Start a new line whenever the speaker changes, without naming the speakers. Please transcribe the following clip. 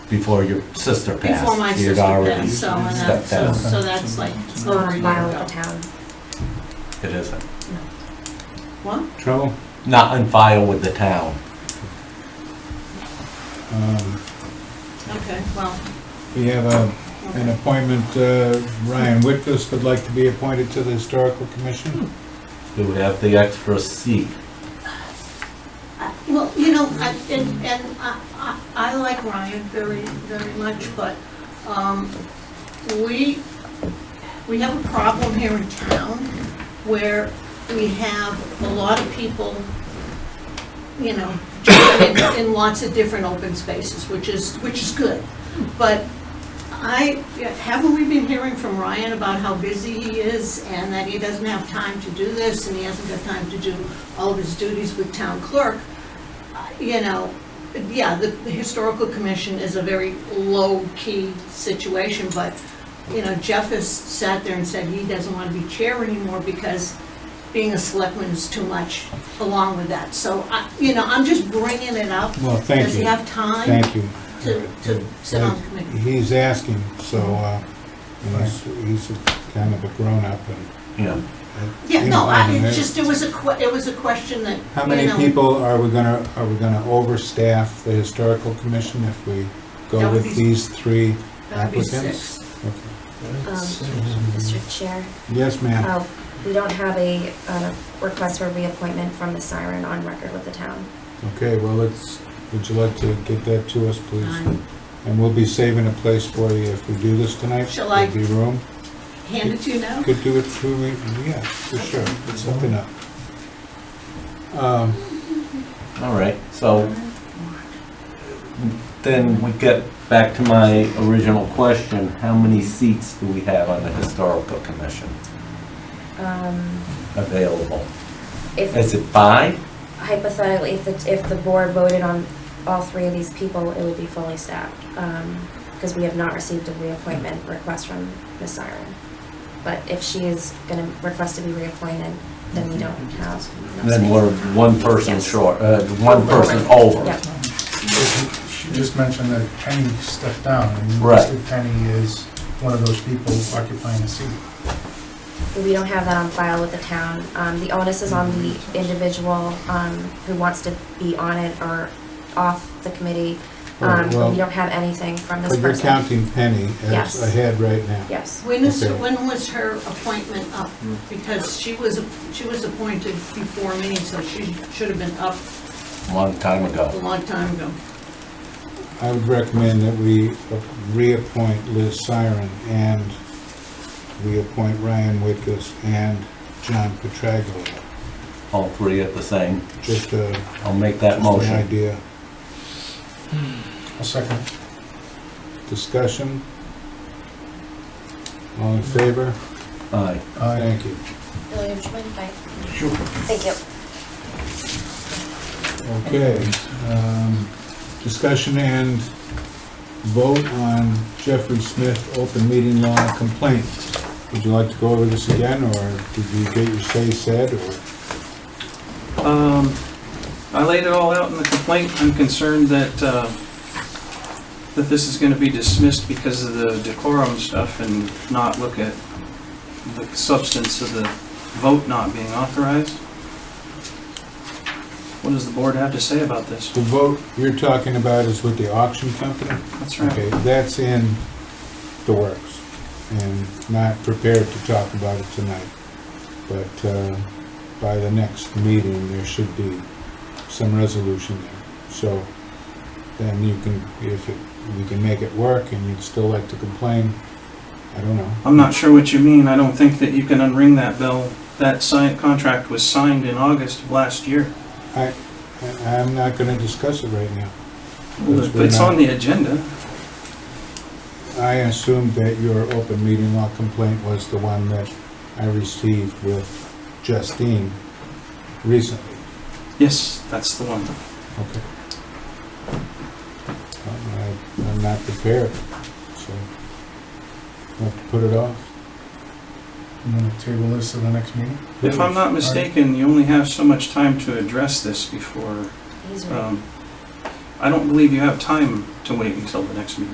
before your sister passed.
Before my
You'd
sister
already
passed, so, and
stepped
that, so,
down.
so that's like
It's not
over a
on
year
file with
ago.
um, the town.
It isn't.
What?
Trouble?
Not on file with the town.
Um,
Okay, well,
We have a, an appointment, uh, Ryan Whitfuss would like to be appointed to the Historical Commission.
Hmm.
Do we have the extra seat?
I- well, you know, I, and, and I, I- I like Ryan very, very much, but, um, we, we have a problem here in town where we have a lot of people, you know, in- in lots of different open spaces, which is, which is good. But I, haven't we been hearing from Ryan about how busy he is and that he doesn't have time to do this and he hasn't got time to do all of his duties with town clerk? Uh, You know, yeah, the the historical commission is a very low-key situation, but, you know, Jeff has sat there and said he doesn't want to be chair anymore because being a selectman is too much along with that. So, I- you know, I'm just bringing it up.
Well, thank
Does he
you.
have time?
Thank you.
to- to sit on the committee.
He's asking, so, uh, you know, he's, he's a kind of a grown-up and.
Yeah.
Yeah,
you
no,
know,
I,
mean,
it's just, it was a que, it was a question that,
How
you
many
know,
people are we gonna, are we gonna overstaff the Historical Commission if we
That
go
would
with
be-
these three
that would be
applicants?
six.
Okay.
Um, Mr. Chair,
Yes, ma'am.
oh, we don't have a, uh request for reappointment from the siren on record with the town.
Oh.
Okay, well, let's, would you like to get that to us, please?
Nine.
And we'll be saving a place for you if we do this tonight.
Shall I-
There'll be room.
Hand it to you now?
Could do it two weeks, yeah, for sure, it's something up. Um,
All right, so then we get back to my original question. How many seats do we have on the historical commission
Um,
available? Is
If
it five?
hypothetically, if the, if the board voted on all three of these people, it would be fully staffed. Um, because we have not received a reappointment request from Ms. Siren. But if she is gonna request to be reappointed, then we don't have. enough
Then
space.
we're one person
Yes.
short, uh, one person over.
Yep.
She just mentioned that Penny stepped down, and
Right.
Mr. Penny is one of those people occupying a seat.
We don't have that on file with the town. Um, the onus is on the individual, um, who wants to be on it or off the committee. Um,
Right, well,
we don't have anything from this
But you're
person.
counting Penny
Yes.
as ahead right now.
Yes.
When is,
Okay.
when was her appointment up? Because she was, she was appointed before me, so she should have been up
Long time
a
ago.
long time ago.
I would recommend that we reappoint Liz Siren and we appoint Ryan Whitkus and John Petraglia.
All three at the same.
Just a,
I'll make that
just an
motion.
idea.
Hmm. A second.
Discussion? All in favor?
Aye.
Aye.
Thank you.
William, would you mind if I? Thank you.
Okay, um, discussion and vote on Jeffrey Smith open meeting law complaint. Would you like to go over this again, or did you get your say said, or?
Um, I laid it all out in the complaint. I'm concerned that, uh, that this is gonna be dismissed because of the decorum stuff and not look at the substance of the vote not being authorized. What does the board have to say about this?
The vote you're talking about is with the auction company?
That's
Okay,
right.
that's in the works, and not prepared to talk about it tonight. But uh, by the next meeting, there should be some resolution there. So then you can, if it- we can make it work and you'd still like to complain, I don't know.
I'm not sure what you mean. I don't think that you can unring that bell. That sign, contract was signed in August of last year.
I, I- I'm not gonna discuss it right now. Because we're
It's
not-
on the agenda.
I assumed that your open meeting law complaint was the one that I received with Justine recently.
Yes, that's the one.
Okay. I- I'm not prepared, so I have to put it off.
I'm gonna table this to the next meeting.
If I'm not mistaken, you only have so much time to address this before,
He's right.
um, I don't believe you have time to wait until the next meeting.